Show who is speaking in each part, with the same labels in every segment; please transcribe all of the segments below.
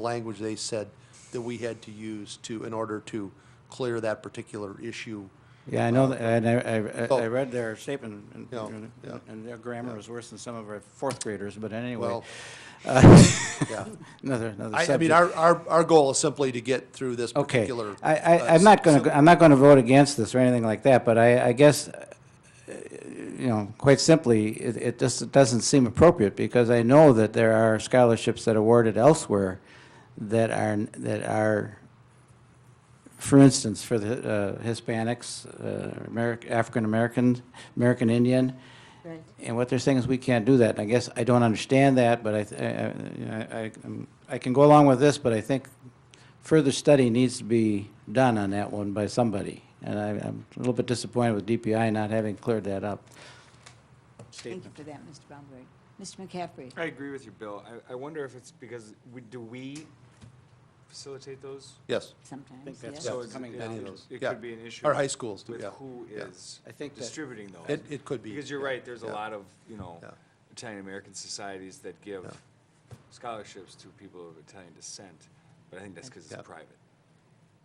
Speaker 1: language they said that we had to use to, in order to clear that particular issue.
Speaker 2: Yeah, I know, that- and I,
Speaker 1: Um, So-
Speaker 2: I, I read their statement, and-
Speaker 1: Yeah,
Speaker 2: and-
Speaker 1: yeah,
Speaker 2: and their grammar is worse than some of our fourth graders, but anyway.
Speaker 1: Well,
Speaker 2: uh,
Speaker 1: yeah.
Speaker 2: Another, another
Speaker 1: I, I mean,
Speaker 2: subject.
Speaker 1: our, our, our goal is simply to get through this
Speaker 2: Okay,
Speaker 1: particular.
Speaker 2: I, I,
Speaker 1: uh,
Speaker 2: I'm not
Speaker 1: sim-
Speaker 2: gonna, I'm not gonna vote against this or anything like that, but I, I guess, uh, you know, quite simply, it, it just it doesn't seem appropriate, because I know that there are scholarships that are awarded elsewhere that are, that are, for instance, for the uh, Hispanics, uh, Ameri- African-American, American Indian,
Speaker 3: Right.
Speaker 2: and what they're saying is we can't do that. And I guess I don't understand that, but I, th- I- I- you know, I, I'm- I can go along with this, but I think further study needs to be done on that one by somebody. And I, I'm a little bit disappointed with DPI not having cleared that up.
Speaker 3: Thank you for that, Mr. Baumgart. Mr. McCaffrey?
Speaker 4: I agree with you, Bill. I, I wonder if it's because, we- do we facilitate those?
Speaker 1: Yes.
Speaker 3: Sometimes,
Speaker 2: think that's
Speaker 3: yes.
Speaker 2: what
Speaker 4: So
Speaker 2: it's
Speaker 4: it's-
Speaker 2: coming
Speaker 4: it-
Speaker 2: down
Speaker 4: it-
Speaker 2: to.
Speaker 4: It
Speaker 1: Yeah.
Speaker 4: could be an issue.
Speaker 1: Our high schools do,
Speaker 4: With
Speaker 1: yeah,
Speaker 4: who
Speaker 1: yeah.
Speaker 4: is
Speaker 2: I think that-
Speaker 4: distributing those.
Speaker 1: It- it could be,
Speaker 4: Because you're
Speaker 1: yeah,
Speaker 4: right, there's a
Speaker 1: yeah.
Speaker 4: lot of, you know,
Speaker 1: Yeah.
Speaker 4: Italian-American societies that give scholarships to people of Italian descent, but I think that's because
Speaker 1: Yeah.
Speaker 4: it's private.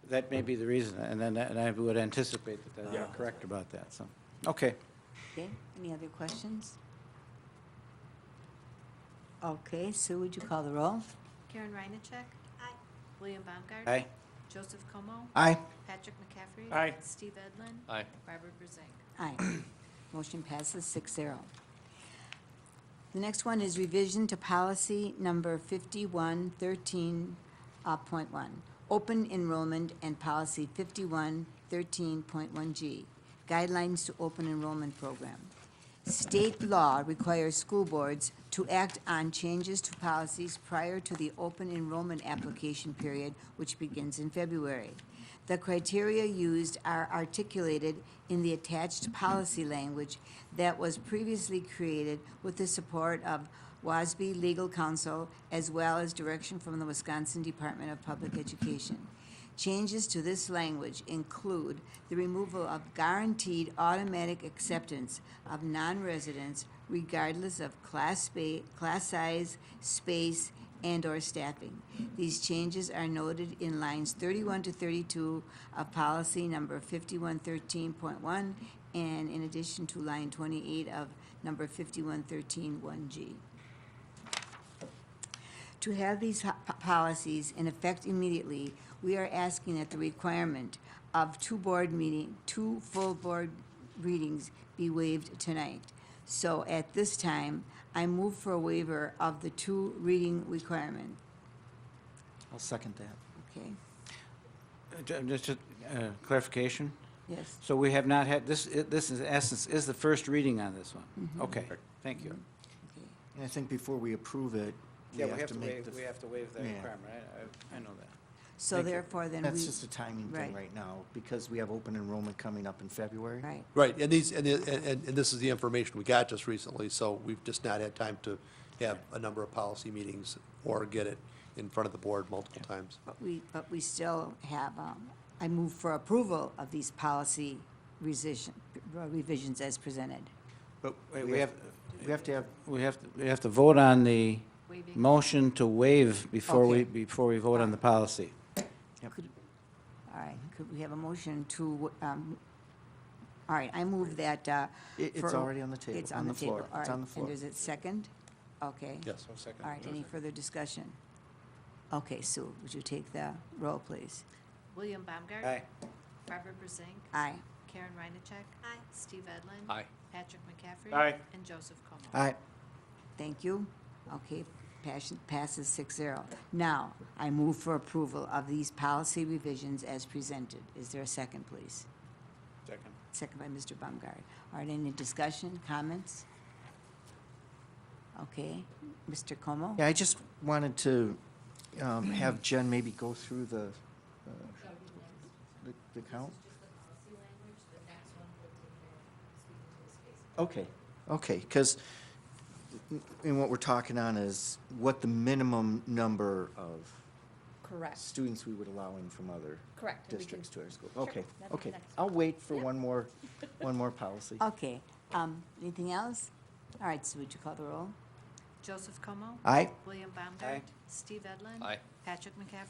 Speaker 2: That may be the reason, and then, and I would anticipate that they're
Speaker 4: Yeah.
Speaker 2: correct about that, so, okay.
Speaker 3: Okay, any other questions? Okay, Sue, would you call the roll?
Speaker 5: Karen Reinacek. Aye. William Baumgart.
Speaker 2: Aye.
Speaker 5: Joseph Como.
Speaker 2: Aye.
Speaker 5: Patrick McCaffrey.
Speaker 2: Aye.
Speaker 5: Steve Edlin.
Speaker 6: Aye.
Speaker 5: Barbara Brusink.
Speaker 3: Aye. Motion passes six zero. The next one is revision to policy number fifty-one thirteen, uh, point one, open enrollment and policy fifty-one thirteen point one G, guidelines to open enrollment program. State law requires school boards to act on changes to policies prior to the open enrollment application period, which begins in February. The criteria used are articulated in the attached policy language that was previously created with the support of WASB legal counsel as well as direction from the Wisconsin Department of Public Education. Changes to this language include the removal of guaranteed automatic acceptance of non-residents regardless of class spa, class size, space, and/or staffing. These changes are noted in lines 31 to 32 of policy number 5113.1 and in addition to line 28 of number 51131G to have these ho- po- policies in effect immediately, we are asking that the requirement of two board meeting, two full board readings be waived tonight. So at this time, I move for a waiver of the two reading requirement,
Speaker 2: I'll second that.
Speaker 3: okay?
Speaker 2: Just a uh, clarification?
Speaker 3: Yes,
Speaker 2: So we have not had, this, i- this is essence, is the first reading on this one? Okay, thank you.
Speaker 3: okay.
Speaker 7: And I think before we approve it, we have to make the,
Speaker 2: have to waive
Speaker 7: that Yeah. requirement.
Speaker 2: I, I know that.
Speaker 3: So
Speaker 7: Thank you.
Speaker 3: therefore, then we.
Speaker 7: that's just a timing
Speaker 3: right.
Speaker 7: thing right now, because we have open enrollment coming up in February.
Speaker 3: Right,
Speaker 1: Right, and these, and, and, and and this is the information we got just recently, so we've just not had time to have a number of policy meetings or get it in front of the board multiple times.
Speaker 3: but we, but we still have, um, I move for approval of these policy revision, revisions as presented.
Speaker 2: But wait, we have,
Speaker 7: We have to have,
Speaker 2: we have, to- we have to vote on the
Speaker 5: Waiving.
Speaker 2: motion to waive before we,
Speaker 3: Okay.
Speaker 2: before we vote on the policy.
Speaker 3: All right, could we have a motion to, um, all right, I move that, uh.
Speaker 7: It- it's
Speaker 3: for-
Speaker 7: already on the table,
Speaker 3: It's
Speaker 7: on
Speaker 3: on the
Speaker 7: the floor,
Speaker 3: table, all right.
Speaker 7: it's on the floor.
Speaker 3: And is it second? Okay.
Speaker 1: Yes.
Speaker 3: All right, any further discussion? Okay, Sue, would you take the roll, please?
Speaker 5: William Baumgart.
Speaker 2: Aye.
Speaker 5: Barbara Brusink.
Speaker 3: Aye.
Speaker 5: Karen Reinacek. Aye. Steve Edlin.
Speaker 6: Aye.
Speaker 5: Patrick McCaffrey.
Speaker 2: Aye.
Speaker 5: And Joseph Como.
Speaker 7: I,
Speaker 3: Thank you. Okay, passion, passes six zero. Now, I move for approval of these policy revisions as presented. Is there a second, please?
Speaker 2: Second.
Speaker 3: Second by Mr. Baumgart. All right, any discussion, comments? Okay, Mr. Como?
Speaker 7: yeah, I just wanted to um, have Jen maybe go through the, uh, the- the count. Okay, okay, because, and what we're talking on is what the minimum number of
Speaker 5: Correct,
Speaker 7: students we would allow in from other
Speaker 5: correct.
Speaker 7: districts to our school.
Speaker 5: Sure,
Speaker 7: Okay,
Speaker 5: that'd be
Speaker 7: okay.
Speaker 5: next.
Speaker 7: I'll wait for one more, one more policy.
Speaker 3: Okay, um, anything else? All right, so would you call the roll?
Speaker 5: Joseph Como.
Speaker 7: Aye.
Speaker 5: William Baumgart. Steve Edlin.
Speaker 6: Aye.
Speaker 5: Patrick McCaffrey.